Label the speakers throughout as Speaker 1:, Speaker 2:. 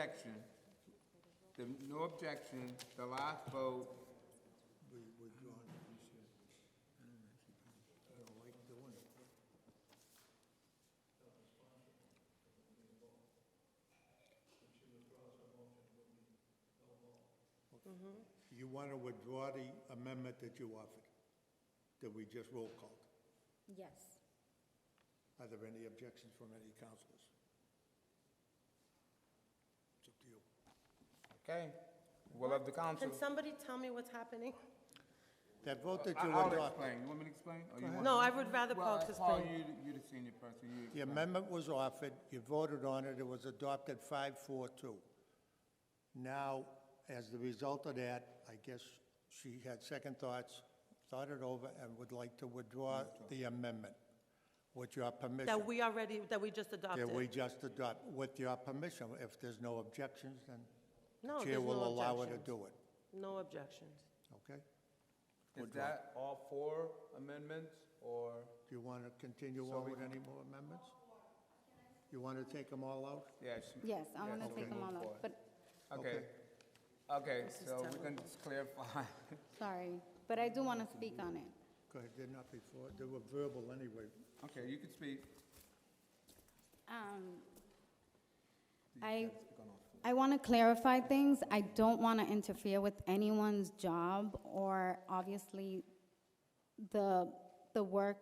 Speaker 1: objection, the, no objection, the last vote,
Speaker 2: You want to withdraw the amendment that you offered, that we just roll called?
Speaker 3: Yes.
Speaker 2: Are there any objections from any councilors? It's up to you.
Speaker 1: okay? Will of the council.
Speaker 4: Can somebody tell me what's happening?
Speaker 2: That vote that
Speaker 1: I-
Speaker 2: you
Speaker 1: I'll
Speaker 2: adopted,
Speaker 1: explain, you want me to explain? or you want-
Speaker 4: No, I would rather
Speaker 1: Well,
Speaker 4: Paul
Speaker 1: Paul,
Speaker 4: explain.
Speaker 1: you, you're the senior person, you explain.
Speaker 2: the amendment was offered, you voted on it, it was adopted five, four, two. Now, as the result of that, I guess she had second thoughts, thought it over, and would like to withdraw the amendment with your permission.
Speaker 4: That we already, that we just adopted?
Speaker 2: That we just adopt, with your permission, if there's no objections, then
Speaker 4: No,
Speaker 2: the
Speaker 4: there's
Speaker 2: chair will
Speaker 4: no
Speaker 2: allow her to
Speaker 4: objections.
Speaker 2: do it,
Speaker 4: No objections.
Speaker 2: okay?
Speaker 1: Is that all four amendments, or?
Speaker 2: Do you want to continue
Speaker 1: So
Speaker 2: on
Speaker 1: we-
Speaker 2: with any more amendments? You want to take them all out?
Speaker 1: Yes.
Speaker 3: Yes, I want to
Speaker 1: yes,
Speaker 3: take
Speaker 1: move
Speaker 3: them all
Speaker 1: forward.
Speaker 3: out, but,
Speaker 1: Okay, okay, so we can just clarify.
Speaker 3: sorry, but I do want to speak on it.
Speaker 2: Go ahead, they're not before, they were verbal anyway.
Speaker 1: Okay, you can speak.
Speaker 3: Um, I,
Speaker 1: Go on.
Speaker 3: I want to clarify things. I don't want to interfere with anyone's job or obviously the, the work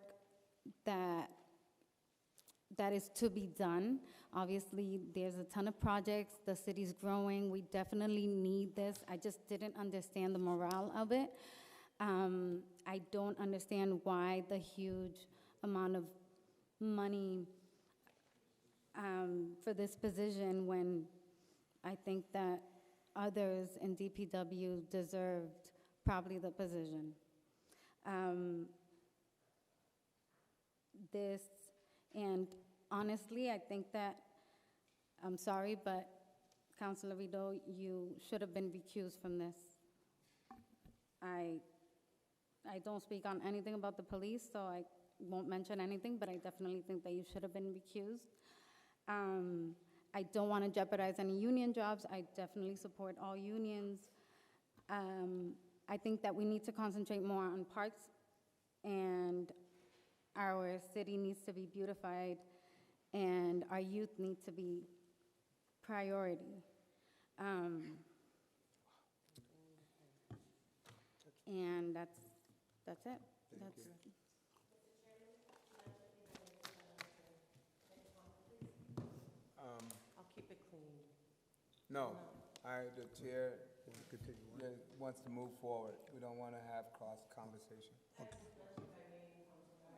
Speaker 3: that, that is to be done. Obviously, there's a ton of projects, the city's growing, we definitely need this. I just didn't understand the morale of it. Um, I don't understand why the huge amount of money um, for this position when I think that others in DPW deserved probably the position. Um, This, and honestly, I think that, I'm sorry, but Counselor Rideau, you should have been recused from this. I, I don't speak on anything about the police, so I won't mention anything, but I definitely think that you should have been recused. Um, I don't want to jeopardize any union jobs. I definitely support all unions. Um, I think that we need to concentrate more on parks, and our city needs to be beautified, and our youth need to be priority. Um, And that's, that's it. That's,
Speaker 4: I'll keep it clean.
Speaker 1: No, I, the chair
Speaker 2: Want to continue on?
Speaker 1: yeah, wants to move forward. We don't want to have cross conversation. All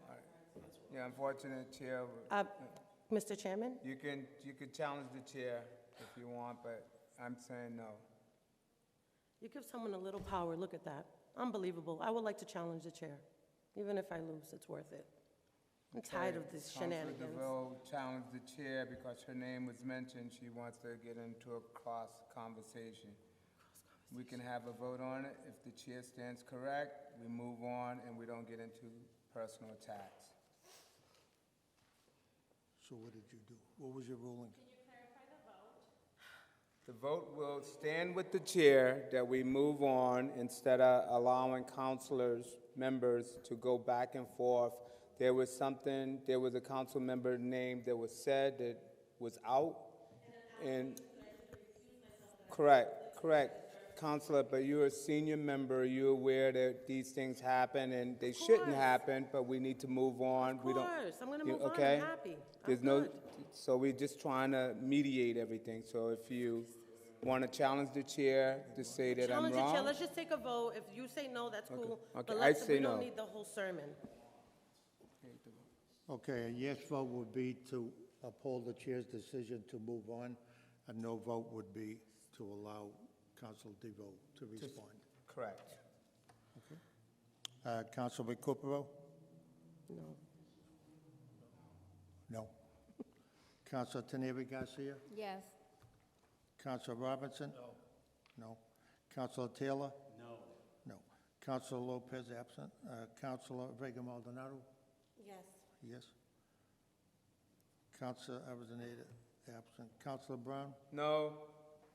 Speaker 1: right. Yeah, unfortunate chair,
Speaker 4: Uh, Mr. Chairman?
Speaker 1: you can, you can challenge the chair if you want, but I'm saying no.
Speaker 4: You give someone a little power, look at that. Unbelievable. I would like to challenge the chair. Even if I lose, it's worth it. I'm tired of these
Speaker 1: Councilor
Speaker 4: shenanigans.
Speaker 1: DeVoe challenged the chair because her name was mentioned. She wants to get into a cross conversation. We can have a vote on it. If the chair stands correct, we move on and we don't get into personal attacks.
Speaker 2: So what did you do? What was your ruling?
Speaker 1: The vote will stand with the chair that we move on instead of allowing councilors, members to go back and forth. There was something, there was a council member name that was said that was out and. Correct, correct, Counselor, but you're a senior member, you're aware that these things happen and they shouldn't
Speaker 4: course.
Speaker 1: happen, but we need to move on.
Speaker 4: Of
Speaker 1: We don't-
Speaker 4: course, I'm gonna
Speaker 1: You-
Speaker 4: move on, I'm
Speaker 1: okay?
Speaker 4: happy. I'm
Speaker 1: There's no,
Speaker 4: good.
Speaker 1: so we're just trying to mediate everything, so if you want to challenge the chair to say that I'm
Speaker 4: Challenge the chair,
Speaker 1: wrong.
Speaker 4: let's just take a vote. If you say no, that's cool.
Speaker 1: okay,
Speaker 4: But
Speaker 1: I
Speaker 4: let's-
Speaker 1: say
Speaker 4: We don't
Speaker 1: no.
Speaker 4: need the whole sermon.
Speaker 2: Okay, a yes vote would be to uphold the chair's decision to move on. A no vote would be to allow Council DeVoe to respond.
Speaker 1: Correct.
Speaker 2: Uh, Councilman Recupero?
Speaker 4: No.
Speaker 2: No. Council Teneri Garcia?
Speaker 3: yes,
Speaker 2: Council Robinson? No. No. Council Taylor? No. No. Council Lopez absent. Uh, Council Vega Maldonado?
Speaker 4: Yes.
Speaker 2: Yes. Council Arizona absent. Council Brown?
Speaker 1: No,